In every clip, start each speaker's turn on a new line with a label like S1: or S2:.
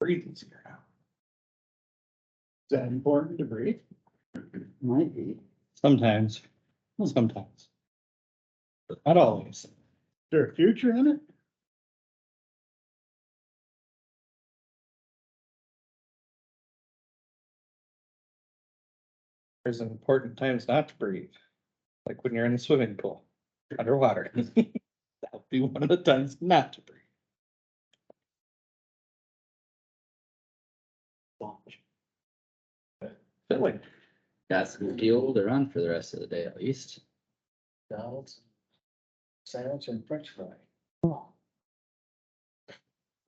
S1: Breathing here now. Is that important to breathe?
S2: Might be. Sometimes, Well, sometimes. But Not always.
S1: Is there a future in it?
S2: There's important times not to breathe. Like when you're in a swimming pool, underwater. That'll be one of the times not to breathe.
S3: Feel like got some fuel to run for the rest of the day at least.
S1: McDonald's. Sandwich and french fry.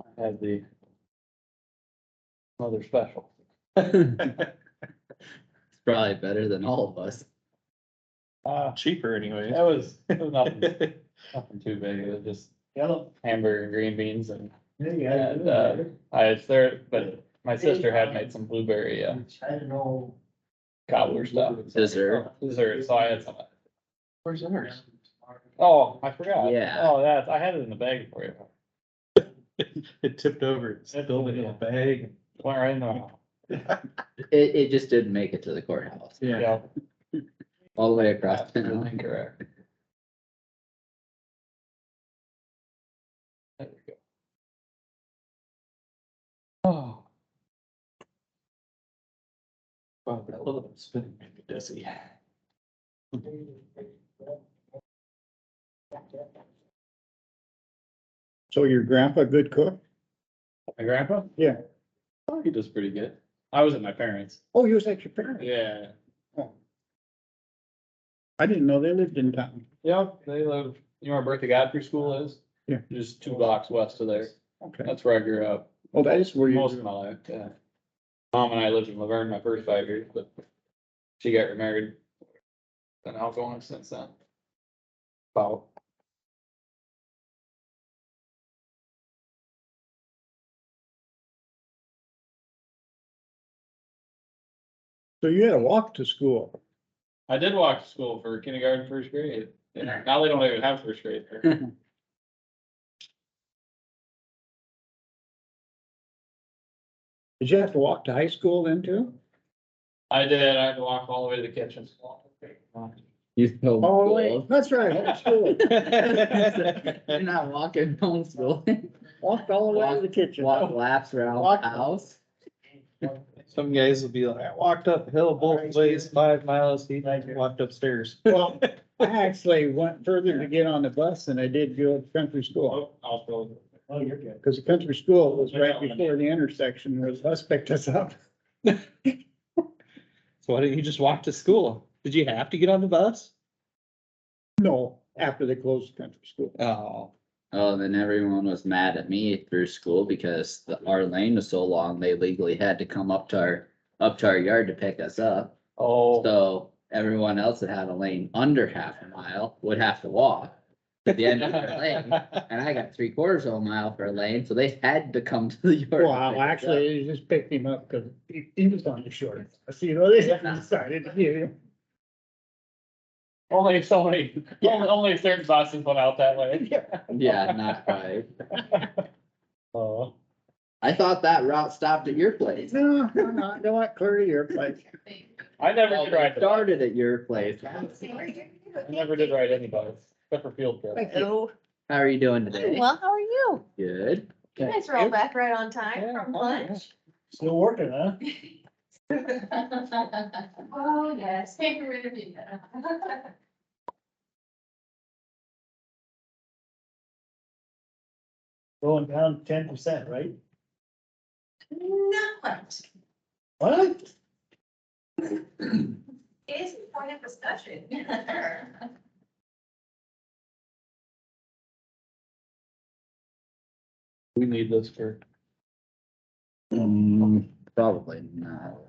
S3: I had the other special. It's probably better than all of us.
S4: Uh,
S2: Cheaper anyways.
S4: that was, it was nothing, nothing too big, it was just hamburger, and green beans and,
S5: Yeah,
S4: and, uh, I, it's there, but my sister had
S5: um,
S4: made some blueberry, uh,
S5: I don't know.
S4: cobbler stuff. Oh,
S3: Dessert.
S4: Dessert, so I had some,
S1: Where's ours?
S4: oh, I forgot.
S3: Yeah.
S4: Oh, that's, I had it in the bag for you,
S2: It tipped over, it spilled in a bag.
S4: went right in the mouth,
S3: It, it just didn't make it to the courthouse,
S2: Yeah.
S4: yeah.
S3: all the way across town.
S4: Absolutely Correct. There we go. Oh.
S1: Wow, that little spinning made me dizzy.
S5: So your grandpa good cook?
S4: My grandpa?
S5: Yeah.
S4: Oh, he does pretty good. I was at my parents'.
S5: Oh, he was at your parents?
S4: Yeah.
S5: I didn't know they lived in town.
S4: Yep, they live, you know where Bertha Godfrey School is?
S5: Yeah.
S4: Just two blocks west of there.
S5: Okay.
S4: That's where I grew up,
S5: Well, that is where
S4: most of
S5: you,
S4: my life, yeah. Mom and I lived in Laverne my first five years, but she got remarried. Been out going since then. About
S5: so you had to walk to school.
S4: I did walk to school for kindergarten, first grade. Now they don't even have first grade. there.
S5: Did you have to walk to high school then too?
S4: I did, I had to walk all the way to the kitchen.
S3: You go.
S5: Oh, wait, that's right, home school.
S3: You're not walking home school,
S5: Walked all the way to the kitchen.
S3: walk laps around
S5: Walk.
S3: the house.
S2: Some guys will be like, I walked uphill both ways, five miles, he walked upstairs.
S5: Well, I actually went further to get on the bus than I did go to country school.
S1: Oh, you're good.
S5: Cause the country school was right before the intersection where the bus picked us up.
S2: So why didn't you just walk to school? Did you have to get on the bus?
S5: No, after they closed the country school.
S2: Oh,
S3: Oh, then everyone was mad at me through school because the, our lane was so long, they legally had to come up to our, up to our yard to pick us up.
S4: Oh,
S3: So everyone else that had a lane under half a mile would have to walk to the end of their lane. And I got three quarters of a mile for a lane, so they had to come to the yard.
S5: Well, actually, they just picked him up because he, he was on the short. I see, though, they decided to give him.
S4: only so many, only, only certain buses went out that way.
S3: Yeah, not right.
S4: Oh.
S3: I thought that route stopped at your place.
S5: No, no, no, I don't clear your place.
S4: I never
S3: Well,
S4: did
S3: it
S4: ride, the bus.
S3: Started at your place.
S4: I never did ride any bus, except for field trip.
S6: Hello.
S3: How are you doing today?
S6: Well, how are you?
S3: Good.
S6: You guys are all back right on time from lunch.
S1: Still working, huh?
S6: Oh, yes. Take rid of you.
S1: Going down ten percent, right?
S6: Not.
S1: What?
S6: It's a point of discussion.
S4: We need this for.
S3: Mm, Probably not.